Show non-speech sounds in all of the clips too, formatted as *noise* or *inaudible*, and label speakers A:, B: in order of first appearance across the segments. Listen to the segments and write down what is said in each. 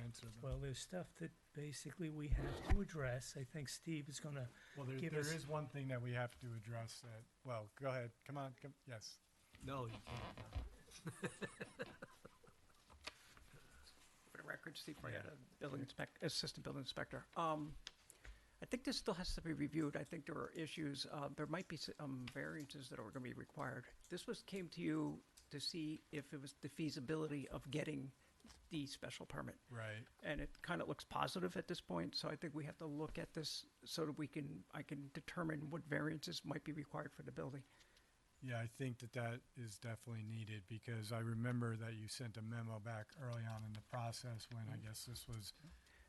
A: doesn't.
B: Well, there's stuff that basically we have to address. I think Steve is gonna,
A: Well, there,
B: give
A: there
B: us-
A: is one thing that we have to address that, well, go ahead, come on, come, yes.
C: No, you can't.
D: for the record, Steve Prayetta, building inspect, assistant building inspector. Um, I think this still has to be reviewed. I think there are issues, uh, there might be s- um, variances that are gonna be required. This was, came to you to see if it was the feasibility of getting the special permit.
A: Right,
D: And it kind of looks positive at this point, so I think we have to look at this so that we can, I can determine what variances might be required for the building.
A: yeah, I think that that is definitely needed, because I remember that you sent a memo back early on in the process when I guess this was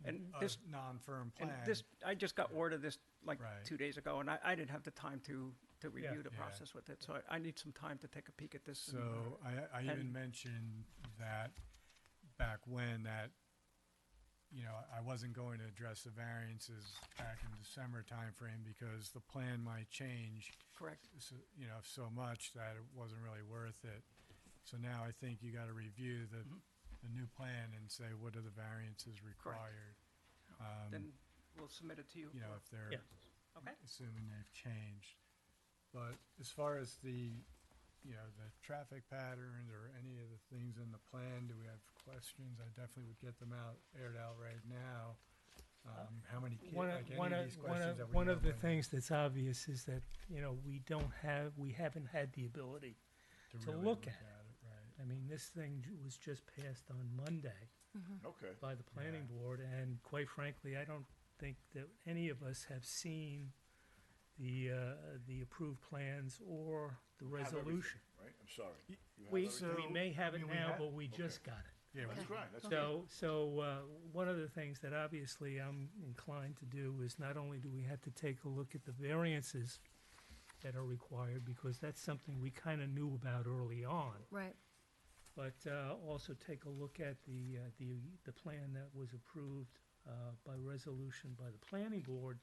D: Mm. And
A: a
D: this,
A: non-firm plan.
D: and this, I just got word of this like
A: Right.
D: two days ago, and I, I didn't have the time to, to
B: Yeah.
D: review the
A: Yeah.
D: process with it, so I, I need some time to take a peek at this. and- uh,
A: So I, I even
D: And-
A: mentioned that back when that, you know, I wasn't going to address the variances back in December timeframe because the plan might change,
D: Correct,
A: so- you know, so much that it wasn't really worth it. So now I think you gotta review the, the new plan and say, what are the variances required?
D: then we'll submit it to you.
A: um, You know, if they're,
B: Yeah.
D: Okay,
A: assuming they've changed. But as far as the, you know, the traffic patterns or any of the things in the plan, do we have questions? I definitely would get them out, aired out right now. Um, How many, ki-
B: one
A: like
B: of,
A: any
B: one
A: of these
B: of, one
A: questions that
B: of,
A: we
B: one
A: know
B: of the
A: when
B: things that's obvious is that, you know, we don't have, we haven't had the ability. to
A: really
B: look at it.
A: it, Right,
B: I mean, this thing ju- was just passed on Monday
E: Mm-hmm.
F: Okay.
B: by the planning
A: Yeah.
B: board, and quite frankly, I don't think that any of us have seen the, uh, the approved plans or the
F: Have everything,
B: resolution.
F: Right, I'm sorry. You have
B: We,
F: everything?
B: we may have
A: I
B: it
A: mean, we
B: now,
A: have-
B: but we
F: Okay.
B: just got it.
A: yeah,
F: That's
A: we-
F: great, that's good.
B: So, so uh, one of the things that obviously I'm inclined to do is not only do we have to take a look at the variances that are required, because that's something we kind of knew about early on,
E: Right.
B: but uh, also take a look at the, uh, the, the plan that was approved uh, by resolution by the planning board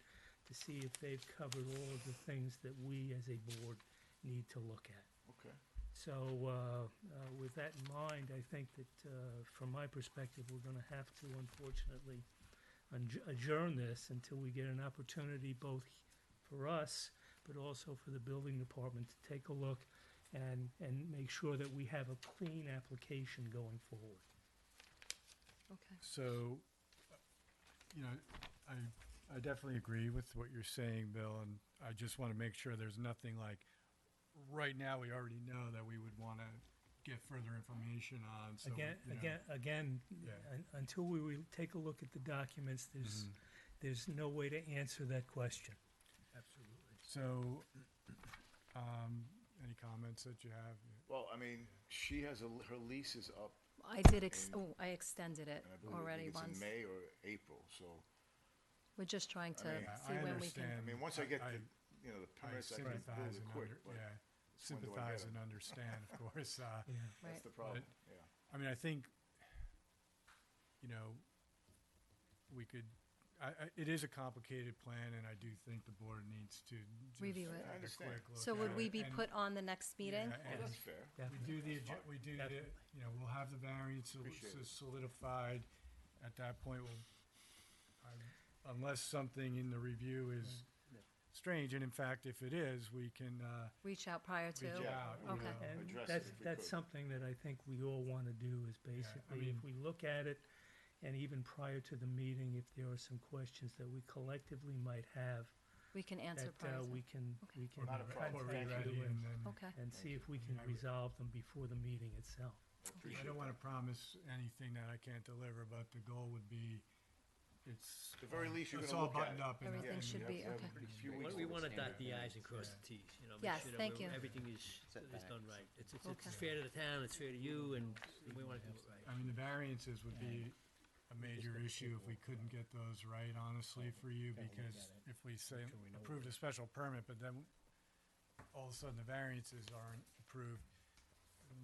B: to see if they've covered all of the things that we as a board need to look at.
F: Okay,
B: So, uh, uh, with that in mind, I think that, uh, from my perspective, we're gonna have to unfortunately adj- adjourn this until we get an opportunity both for us, but also for the building department to take a look and, and make sure that we have a clean application going forward.
E: Okay.
A: So, uh, you know, I, I definitely agree with what you're saying, Bill, and I just want to make sure there's nothing like, right now, we already know that we would want to get further information on, so.
B: Again,
A: you know,
B: again, again,
A: Yeah.
B: un- until we re- take a look at the documents, there's,
A: Mm-hmm.
B: there's no way to answer that question.
A: So, um, any comments that you have?
F: well, I mean, she has, a her lease is up,
E: I did, ex-
F: And-
E: oh, I extended it
F: and I
E: already
F: believe it's in
E: once.
F: May or April, so,
E: We're just trying
F: I mean,
E: to
A: I-
E: see
A: I
E: when we can.
F: I
A: understand.
F: mean, once I get
A: I-
F: the, you know, the
A: I
F: permits, I can
A: sympathize
F: build it
A: and
F: quick,
A: under,
F: but
A: yeah,
F: it's when do I get
A: sympathize
F: it?
A: and understand, of course, uh,
B: Yeah.
E: Right.
F: that's the problem, yeah.
A: I mean, I think, you know, we could, I, I, it is a complicated plan, and I do think the board needs to. just
E: Review it.
A: have a
F: I understand.
A: quick look
E: So would
A: at
E: we
A: it,
E: be
A: and-
E: put on the next meeting?
A: Yeah,
F: Well,
A: and-
F: that's fair.
A: We do the, adju- we do the,
B: Definitely.
A: you know, we'll have the variance
F: Appreciate it.
A: solidified. At that point, we'll, I- unless something in the review is strange, and in fact, if it is, we can, uh,
E: Reach out prior
A: reach
E: to?
A: out. you
E: Okay.
A: know,
F: Yeah.
B: And
F: address it
B: that's,
F: if we
B: that's
F: could.
B: something that I think we all want to do is basically,
A: mean-
B: if we look at it, and even prior to the meeting, if there are some questions that we collectively might have,
E: We can answer
B: that
E: prior
B: uh,
E: to?
B: we can,
E: Okay.
B: we can
F: Not a problem.
A: We're
B: contact
A: ready,
B: you
A: and
B: and,
A: then-
E: Okay,
B: and see if
A: I
B: we
A: mean,
B: can
A: I would-
B: resolve them before the meeting itself.
F: I
A: I
F: appreciate
A: don't
F: it.
A: wanna promise anything that I can't deliver, but the goal would be, it's.
F: The very least you're
A: it's
F: gonna
A: all
F: look at
A: buttoned
F: it.
A: up and-
E: Everything
A: and-
E: should
F: you
E: be-
F: have to have
E: okay.
F: a few
G: We-
F: weeks
G: We
F: to
G: want to
F: understand
G: dot the
F: it.
G: i's and cross the t's, you know. make
E: Yes,
G: sure that
E: thank
G: we're-
E: you.
G: Everything is, is done right. It's, it's-
E: Okay.
G: it's fair to the town, it's fair to you, and we want to do it right.
A: I mean, the variances would be a major issue if we couldn't get those right, honestly, for you, because if we say, approved a special permit, but then all of a sudden the variances aren't approved,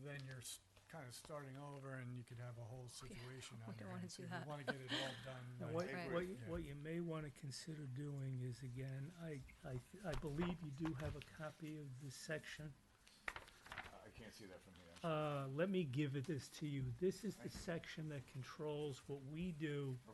A: then you're kind of starting over and you could have a whole situation
E: *laughs* we
A: on
E: don't
A: your
E: wanna
A: hands.
E: do
A: You
E: that.
A: want to get it all
B: Now,
A: done.
B: what,
A: right.
F: agree.
B: what, you-
A: Yeah.
B: what you may want to consider doing is, again, I, I, I believe you do have a copy of this section.
F: I I can't see that from here.
B: Uh, let me give it this to you. This is the section that controls what we do